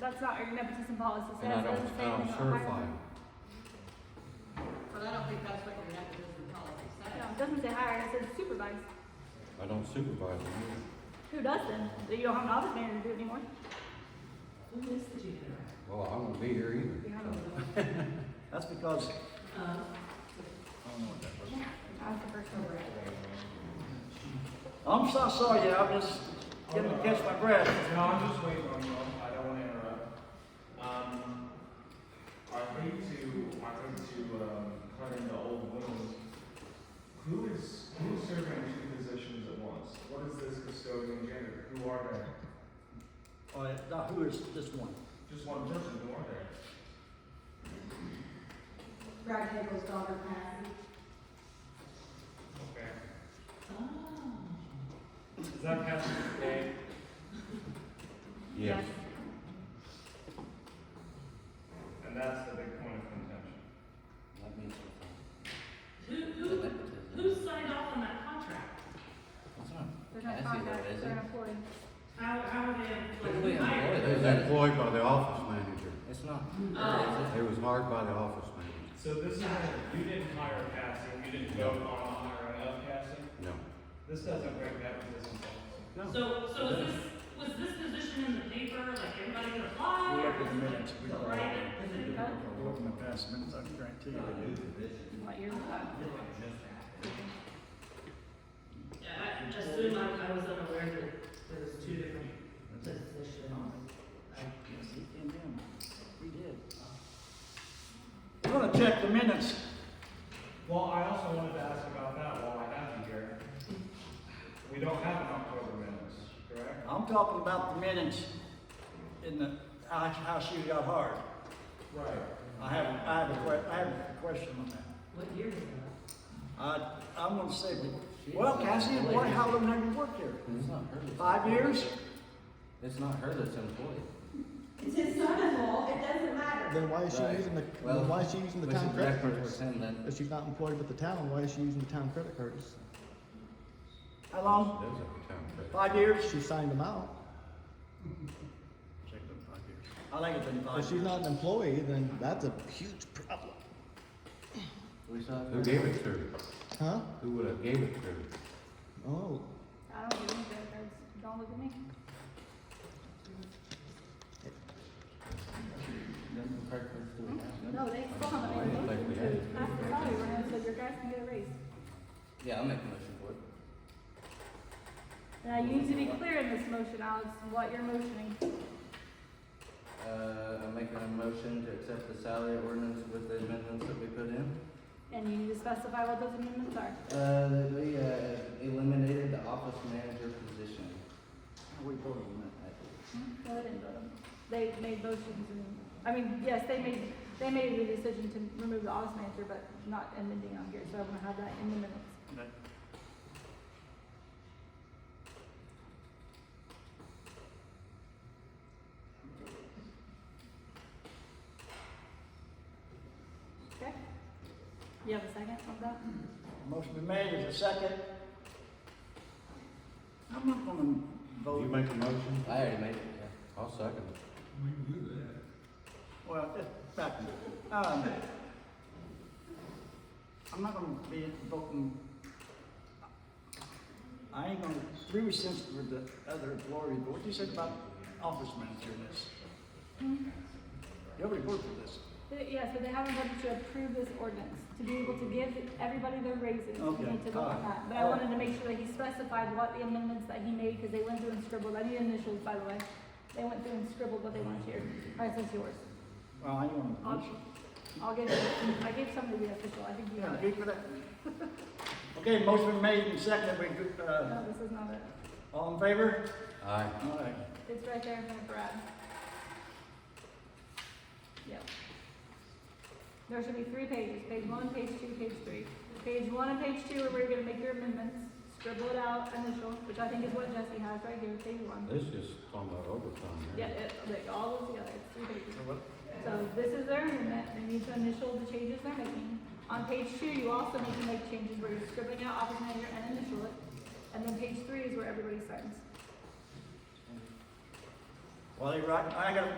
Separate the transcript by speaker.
Speaker 1: That's not your nepotism policy
Speaker 2: And I
Speaker 1: says. It
Speaker 2: don't,
Speaker 1: doesn't say
Speaker 2: I don't
Speaker 1: anything about
Speaker 2: certify
Speaker 1: hiring.
Speaker 2: them.
Speaker 3: But I don't think that's what your nepotism policy
Speaker 1: No, it
Speaker 3: says.
Speaker 1: doesn't say hire, it says supervise.
Speaker 2: I don't supervise them.
Speaker 1: Who does then? You don't have an office manager to do it anymore.
Speaker 3: Who is the janitor?
Speaker 2: Well, I won't be here
Speaker 1: You
Speaker 2: either.
Speaker 1: have a-
Speaker 4: That's because,
Speaker 3: Uh,
Speaker 4: I don't know what that was.
Speaker 1: That's the first one.
Speaker 4: I'm so sorry, yeah, I'm just getting to catch my breath.
Speaker 5: No, I'm just waiting on you. I don't want to interrupt. Um, I think to, I think to, um, cut into old wounds. Who is, who is serving two positions at once? What is this custodian janitor? Who are they?
Speaker 4: All right, now who is this one?
Speaker 5: Just one person, who are they?
Speaker 6: Brad Hagel's daughter Patty.
Speaker 5: Okay.
Speaker 3: oh.
Speaker 5: Is that Catherine's name?
Speaker 2: Yes,
Speaker 5: And that's the big point of contention.
Speaker 2: that means
Speaker 3: Who, who, who signed off on that contract?
Speaker 1: They're not
Speaker 7: I see what it
Speaker 1: contract,
Speaker 7: is.
Speaker 1: they're employed.
Speaker 3: How, how are
Speaker 7: Who
Speaker 3: they
Speaker 7: we
Speaker 3: hired?
Speaker 7: employed?
Speaker 2: It was employed by the office manager.
Speaker 7: It's not.
Speaker 3: Oh.
Speaker 2: It was hired by the office manager.
Speaker 5: So this is, you didn't hire Cassie, you didn't vote on hiring of Cassie?
Speaker 2: No,
Speaker 5: This doesn't break that position policy.
Speaker 3: So, so was this, was this position in the paper, like everybody could apply?
Speaker 4: We
Speaker 3: or
Speaker 4: have the
Speaker 3: was it
Speaker 4: minutes. We don't-
Speaker 3: private? Was it- Uh,
Speaker 4: We're in the past minutes, I guarantee you.
Speaker 1: What year was that?
Speaker 3: Yeah, I just assumed I, I was unaware that there was two different positions.
Speaker 4: Yes, he came in. We did. We're gonna check the minutes.
Speaker 5: Well, I also wanted to ask about that while I have you here. We don't have an October minutes, correct?
Speaker 4: I'm talking about the minutes in the, how- how she got hard.
Speaker 5: Right.
Speaker 4: I have, I have a que, I have a question on that.
Speaker 3: What year was that?
Speaker 4: I, I'm gonna say, well, Cassie, what, how long have you worked here?
Speaker 7: It's not her that's.
Speaker 4: Five
Speaker 7: employed.
Speaker 4: years?
Speaker 7: It's not her that's employed.
Speaker 6: It's his son-in-law, it doesn't matter.
Speaker 8: Then why is she
Speaker 7: Right.
Speaker 8: using the,
Speaker 7: Well,
Speaker 8: then why is she using the
Speaker 7: Which
Speaker 8: town
Speaker 7: is
Speaker 8: credit
Speaker 7: reference
Speaker 8: cards?
Speaker 7: him then.
Speaker 8: If she's not employed with the town, why is she using the town credit cards?
Speaker 4: How
Speaker 2: there's a
Speaker 4: long?
Speaker 2: town credit.
Speaker 4: Five years?
Speaker 8: She signed them out.
Speaker 4: I think it's been five
Speaker 8: If
Speaker 4: years.
Speaker 8: she's not an employee, then that's a huge problem.
Speaker 7: We saw.
Speaker 2: Who gave it to her?
Speaker 8: Huh?
Speaker 2: Who would have gave it to her?
Speaker 8: Oh,
Speaker 1: I don't give any credit cards. Don't look at me.
Speaker 7: Then the credit cards do we have?
Speaker 1: No, they still haven't
Speaker 2: I
Speaker 1: made a
Speaker 2: didn't think
Speaker 1: motion
Speaker 2: we
Speaker 1: to
Speaker 2: had it.
Speaker 1: ask the salary range, so your guys can get a raise.
Speaker 7: Yeah, I'll make a motion for it.
Speaker 1: And I need to be clear in this motion, Alex, what you're motioning.
Speaker 7: Uh, I'm making a motion to accept the salary ordinance with the amendments that we put in.
Speaker 1: And you need to specify what those amendments are.
Speaker 7: Uh, that we, uh, eliminated the office manager position.
Speaker 4: We voted
Speaker 7: on that.
Speaker 1: No, they didn't vote on it. They made motions and, I mean, yes, they made, they made the decision to remove the office manager, but not amending on here, so I'm gonna have that in the minutes.
Speaker 4: Okay.
Speaker 1: Okay? You have a second on that?
Speaker 4: Motion been made, is a second. I'm not gonna
Speaker 2: You
Speaker 4: vote,
Speaker 2: make a motion?
Speaker 7: I already made it, yeah.
Speaker 2: I'll second it.
Speaker 4: well, it's back, um, I'm not gonna be voting. I ain't gonna, we were sensitive with the other glory, but what you said about office manager and this? Nobody voted for this.
Speaker 1: They- Yeah, so they haven't voted to approve this ordinance, to be able to give everybody their raises, we
Speaker 4: Okay,
Speaker 1: need to vote on
Speaker 4: alright,
Speaker 1: that. But I wanted to make sure that he specified what the amendments that he made, because they went through and scribbled, I need initials, by the way. They went through and scribbled what they wanted here, alright, so it's yours.
Speaker 4: Well, I ain't gonna.
Speaker 1: I'll, I'll give, it- I gave some to the official, I think you
Speaker 4: Yeah,
Speaker 1: have it.
Speaker 4: good for that. Okay, motion been made and seconded, we, uh,
Speaker 1: No, Oh, this is not it,
Speaker 4: all in favor?
Speaker 2: Aye.
Speaker 4: All right.
Speaker 1: it's right there in front of Brad. Yep. There should be three pages, page one, page two, page three. Page one and page two are where you're gonna make your amendments, scribble it out, initial, which I think is what Jesse has right here, page one.
Speaker 2: This is talking about overtime
Speaker 1: Yeah,
Speaker 2: here.
Speaker 1: it, like, all those together, it's three pages.
Speaker 4: So what,
Speaker 1: So this is their amendment, they need to initial the changes they're making. On page two, you also need to make changes where you're scribbling out office manager and initial it. And then page three is where everybody signs.
Speaker 4: Well, they right, I got